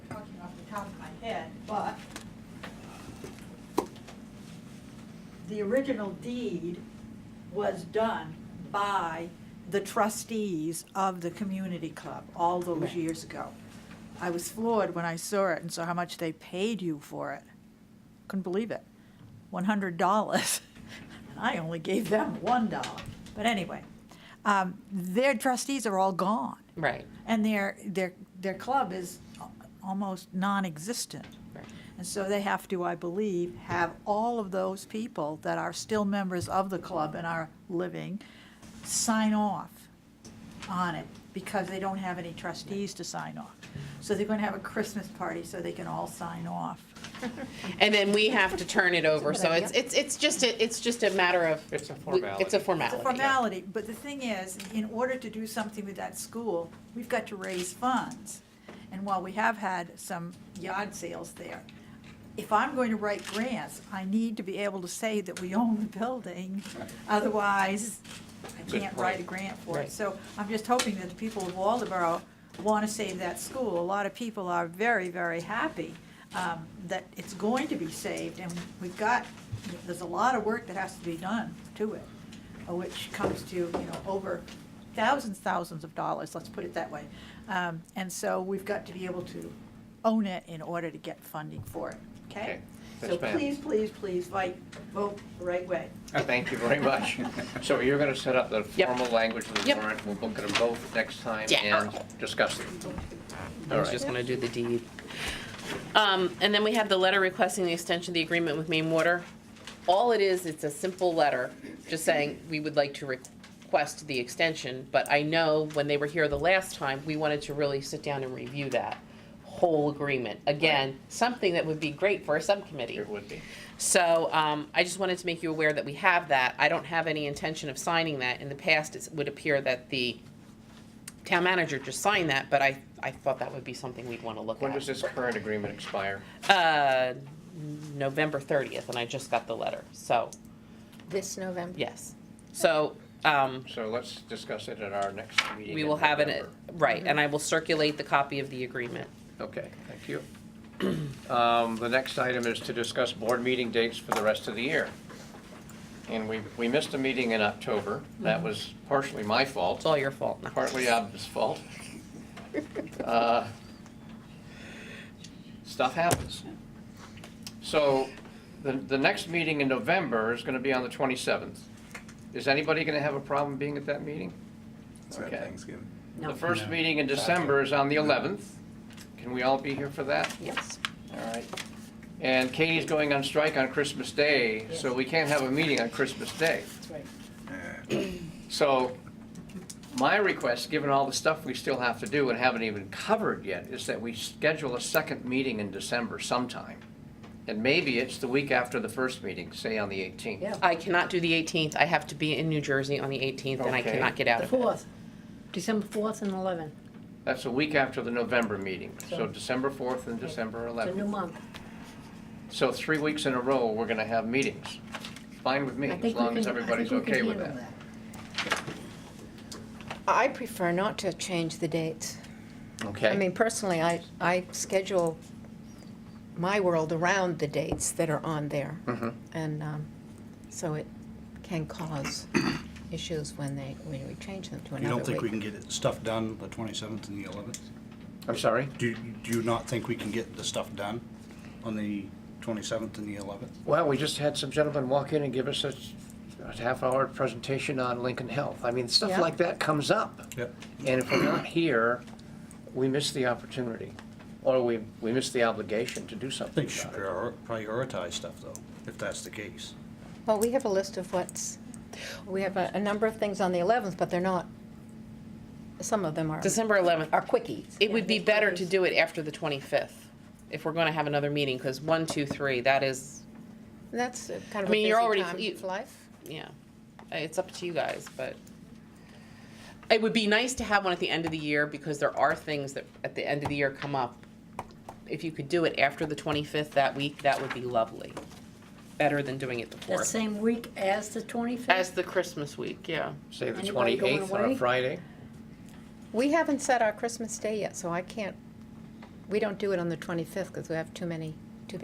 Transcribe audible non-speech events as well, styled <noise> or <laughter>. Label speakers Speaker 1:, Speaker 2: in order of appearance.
Speaker 1: the original deed was done by the trustees of the community club all those
Speaker 2: Right.
Speaker 1: years ago. I was floored when I saw it and saw how much they paid you for it. Couldn't believe it. One hundred dollars. <laughs> And I only gave them one dollar. But anyway, um, their trustees are all gone.
Speaker 2: Right,
Speaker 1: And their, their, their club is al- almost non-existent.
Speaker 2: right.
Speaker 1: And so they have to, I believe, have all of those people that are still members of the club and are living sign off on it because they don't have any trustees to sign off. So they're going to have a Christmas party so they can all sign off.
Speaker 2: And then we have to turn it over, so
Speaker 3: Good
Speaker 2: it's, it's, it's just, a it's just a matter of.
Speaker 4: It's a
Speaker 2: we- It's a
Speaker 4: formality.
Speaker 1: It's
Speaker 2: formality.
Speaker 1: a formality, but the thing is, in order to do something with that school, we've got to raise funds. And while we have had some yard sales there, if I'm going to write grants, I need to be able to say that we own the building. Otherwise, I
Speaker 4: Good
Speaker 1: can't write a
Speaker 4: point.
Speaker 1: grant for it.
Speaker 2: Right.
Speaker 1: So I'm just hoping that the people of Waldeboro want to save that school. A lot of people are very, very happy um, that it's going to be saved, and we've got, there's a lot of work that has to be done to it, uh, which comes to, you know, over thousands, thousands of dollars, let's put it that way. Um, And so we've got to be able to own it in order to get funding for it, okay?
Speaker 4: Okay.
Speaker 1: So
Speaker 4: Yes, ma'am.
Speaker 1: please, please, please, like, vote the right way.
Speaker 4: Oh, Thank you very much.
Speaker 2: <laughs>
Speaker 4: So you're going to set up the
Speaker 2: Yep.
Speaker 4: formal language of the
Speaker 2: Yep.
Speaker 4: warrant, we'll book them both next time
Speaker 2: Yeah.
Speaker 4: and discuss them.
Speaker 2: I was
Speaker 4: All
Speaker 2: just
Speaker 4: right.
Speaker 2: gonna do the deed. Um, and then we have the letter requesting the extension of the agreement with Maine Water. All it is, it's a simple letter, just saying, we would like to request the extension, but I know when they were here the last time, we wanted to really sit down and review that whole agreement. Again, something that would be great for a subcommittee.
Speaker 4: It would be.
Speaker 2: So um, I just wanted to make you aware that we have that. I don't have any intention of signing that. In the past, it would appear that the town manager just signed that, but I, I thought that would be something we'd want to look
Speaker 4: When does
Speaker 2: at.
Speaker 4: this current agreement expire?
Speaker 2: Uh, November 30th, and I just got the letter, so,
Speaker 3: This November?
Speaker 2: yes. So um,
Speaker 4: So let's discuss it at our next meeting.
Speaker 2: we
Speaker 4: in
Speaker 2: will have it,
Speaker 4: November.
Speaker 2: right, and I will circulate the copy of the agreement.
Speaker 4: Okay, thank you. <clears throat> Um, The next item is to discuss board meeting dates for the rest of the year. And we, we missed a meeting in October.
Speaker 2: Mm-hmm.
Speaker 4: That was partially my fault.
Speaker 2: It's all your fault. No.
Speaker 4: partly Abby's fault. Uh, Stuff happens. So, the, the next meeting in November is gonna be on the twenty-seventh. Is anybody gonna have a problem being at that meeting?
Speaker 5: It's not
Speaker 4: Okay.
Speaker 5: Thanksgiving.
Speaker 4: The
Speaker 2: No.
Speaker 4: first
Speaker 5: No.
Speaker 4: meeting in December is on the eleventh. Can we all be here for that?
Speaker 2: Yes.
Speaker 4: All right. And Katie's going on strike on Christmas Day, so we can't have a meeting on Christmas Day. <clears throat> So my request, given all the stuff we still have to do and haven't even covered yet, is that we schedule a second meeting in December sometime. And maybe it's the week after the first meeting, say on the 18th.
Speaker 3: Yeah.
Speaker 2: I cannot do the 18th. I have to be in New Jersey on the 18th, and I
Speaker 4: Okay.
Speaker 2: cannot get out
Speaker 3: The
Speaker 2: of it.
Speaker 3: fourth, December fourth and eleven.
Speaker 4: That's a week after the November meeting, so
Speaker 3: So-
Speaker 4: December 4th and December
Speaker 3: It's a new
Speaker 4: 11th.
Speaker 3: month.
Speaker 4: So three weeks in a row, we're going to have meetings. Fine with me,
Speaker 3: I
Speaker 4: as
Speaker 3: think we
Speaker 4: long
Speaker 3: can-
Speaker 4: as
Speaker 3: I
Speaker 4: everybody's
Speaker 3: think we can
Speaker 4: okay with
Speaker 3: handle
Speaker 4: that.
Speaker 3: I prefer not to change the dates. I
Speaker 4: Okay,
Speaker 3: mean, personally, I, I schedule my world around the dates that are on there.
Speaker 2: Mm-hmm.
Speaker 4: Mhm.
Speaker 3: And um, so it can
Speaker 2: <coughs>
Speaker 3: cause issues when they, when we change them to
Speaker 5: You
Speaker 3: another
Speaker 5: don't think we
Speaker 3: week.
Speaker 5: can get it- stuff done the 27th and the 11th?
Speaker 4: I'm sorry?
Speaker 5: Do you- do you not think we can get the stuff done on the 27th and the 11th?
Speaker 4: Well, we just had some gentlemen walk in and give us a a half-hour presentation on Lincoln Health. I mean, stuff
Speaker 3: Yeah.
Speaker 4: like that comes up.
Speaker 5: Yep.
Speaker 4: And if we're not here, we miss the opportunity, or we, we miss the obligation to do
Speaker 5: I
Speaker 4: something
Speaker 5: think you should
Speaker 4: about it.
Speaker 5: prior- prioritize stuff, though, if that's the case.
Speaker 3: Well, we have a list of what's, we have a, a number of things on the eleventh, but they're not, some of them are,
Speaker 2: December 11th.
Speaker 3: are quickies.
Speaker 2: It would be better to do it after the 25th, if we're going to have another meeting, because one, two, three, that is,
Speaker 3: That's uh,
Speaker 2: I
Speaker 3: kind of a
Speaker 2: mean,
Speaker 3: busy
Speaker 2: you're already-
Speaker 3: time
Speaker 2: you-
Speaker 3: of life.
Speaker 2: yeah, Uh, it's up to you guys, but it would be nice to have one at the end of the year, because there are things that at the end of the year come up. If you could do it after the 25th that week, that would be lovely. Better than doing it the
Speaker 6: That
Speaker 2: 4th.
Speaker 6: same week as the
Speaker 2: As
Speaker 6: 25th?
Speaker 2: the Christmas week, yeah.
Speaker 4: Say the
Speaker 6: Anybody going
Speaker 4: twenty-eighth on a
Speaker 6: away?
Speaker 4: Friday?
Speaker 3: We haven't set our Christmas day yet, so I can't, we don't do it on the twenty-fifth because we have too many